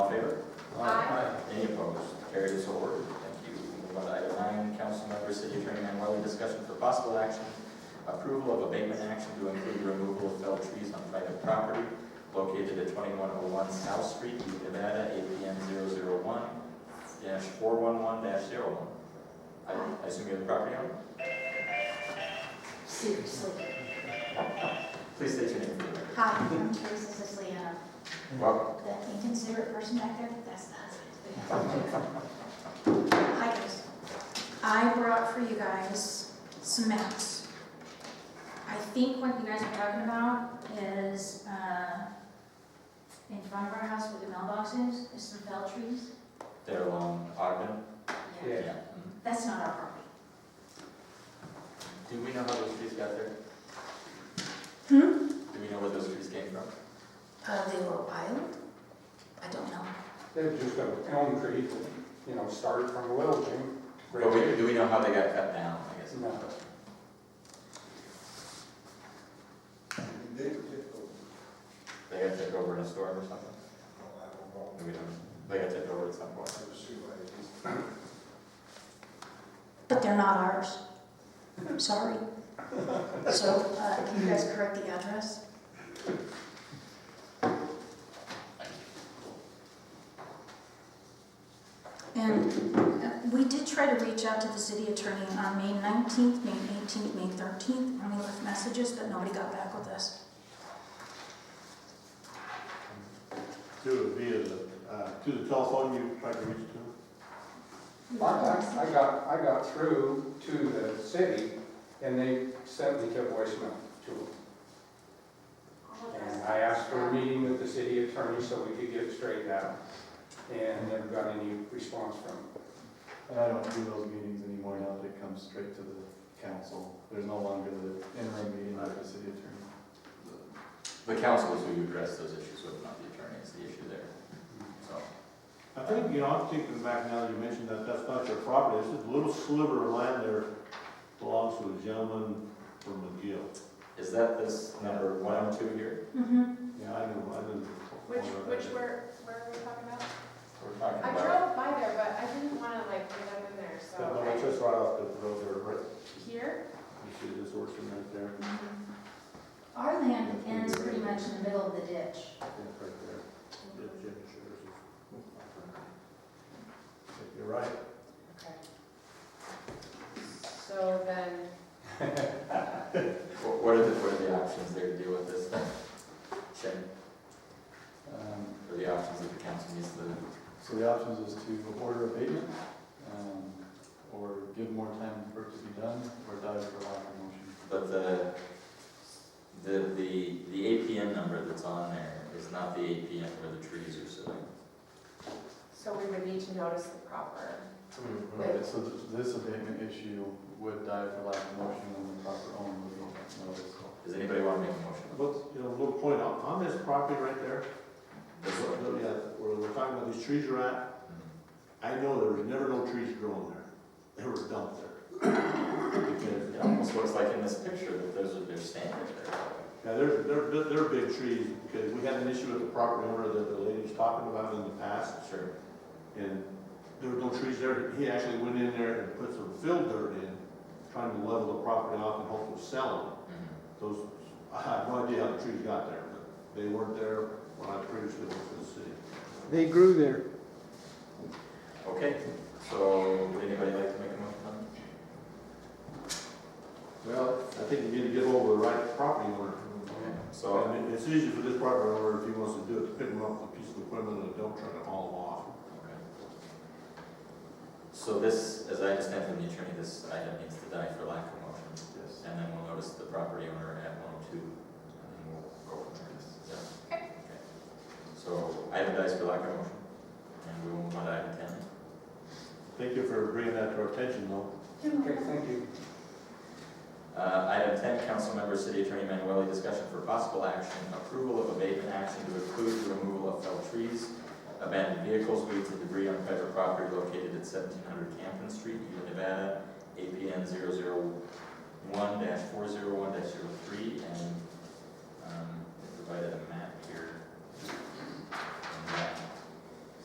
Aye. Any opposed? Carried as so ordered. Thank you. Move on to item nine, council member, city attorney Manuel, discussion for possible action, approval of abatement action to include removal of felled trees on private property located at twenty-one oh one South Street, Ute, Nevada, APN 1 four one one one I I assume you're the property owner? Seriously. Please state your name for the record. Hi, I'm Teresa Siciliano. Welcome. That inconsiderate person back there, that's the husband. Hi, guys. I brought for you guys some maps. I think what you guys are talking about is, uh, in front of our house where the mailbox is, is some fell trees. They're along um, Ogden? Yeah. Yeah. Mm-hmm. That's not our property. Do we know how those trees got there? Hmm? Do we know where those trees came from? Uh, they were wild? I don't know. They're just a elm tree, you know, started from a little thing. But we, do we know how they got cut down, I guess? No. They were difficult. They got taken over in a storm or something? Oh, I don't know. Do we know? They got taken over at some point. I was sure I just- But they're not ours. I'm sorry. So, uh, can you guys correct the address? And uh, we did try to reach out to the city attorney on May 19th, May 18th, May 13th, and we left messages, but nobody got back with us. Through via the, uh, through the telephone you tried to reach to? I, I I got, I got through to the city and they sent me to voicemail to them. And I asked for a meeting with the city attorney so we could get it straightened out. And never got any response from them. And I don't do those meetings anymore now that it comes straight to the council. There's no longer the interim meeting by the city attorney. The council is who you address those issues with, not the attorney, it's the issue there. So, I think, you know, I'm thinking back now that you mentioned that that's not your property, this is a little sliver of land there belongs to a gentleman from McGill. is that this number one oh two here? Mhm. Yeah, I know, I didn't. Which, which were, where were we talking about? We're talking I about, drove by there, but I didn't wanna like get up in there, so. That one, I- it's just right off the road there, right? Here? You see this orchard right there? Our land ends pretty much in the middle of the ditch. Yeah, right there. Yeah, Jim Scherer's. I think You're right. Okay. So then, wh- what are the, what are the options there to deal with this? Shannon, Um, what are the options that the council needs to, So the options is to order abatement, um, or give more time for it to be done, or die for lack of motion. but the, the, the, the APN number that's on there is not the APN where the trees are sitting. so we would need to notice the proper. Hmm. Okay, So th- this abatement issue would die for lack of motion when the proper owner would be noticed. Does anybody want to make a motion? What's, you know, a little point on, on this property right there, This one? yeah, where we're talking about these trees are at, Mm-hmm. I know there was never no trees growing there. They were dumped there. Because, It almost looks like in this picture that those are their standards there. Yeah, they're, they're, bi- they're big trees, because we had an issue with the property owner that the lady was talking about in the past, Sure. and there were no trees there. He actually went in there and put some fill dirt in, trying to level the property off and hopefully sell Mm-hmm. it. Those, I have no idea how the trees got there, but they weren't there when I previously was in the city. They grew there. Okay, so would anybody like to make a motion on Well, I think you need to get over the right property owner. it? Okay, So, Well, I mean, it's easy for this property owner, if he wants to do it, to pick him up with a piece of equipment and a dump truck and haul him off. okay. So this, as I understand from the attorney, this item needs to die for lack of motion, Yes. and then we'll notice the property owner at one oh two, and then we'll go from there. Is that- Okay. So item dies for lack of motion, and we will move on to item ten. Thank you for bringing that to our attention, though. Okay, thank you. Uh, Item 10, council member, city attorney Manuelli, discussion for possible action, approval of abatement action to include the removal of felled trees, abandoned vehicles, weeds, and debris on private property located at 1700 Campen Street, Ute, Nevada, APN 001-401-03, and um, they provided a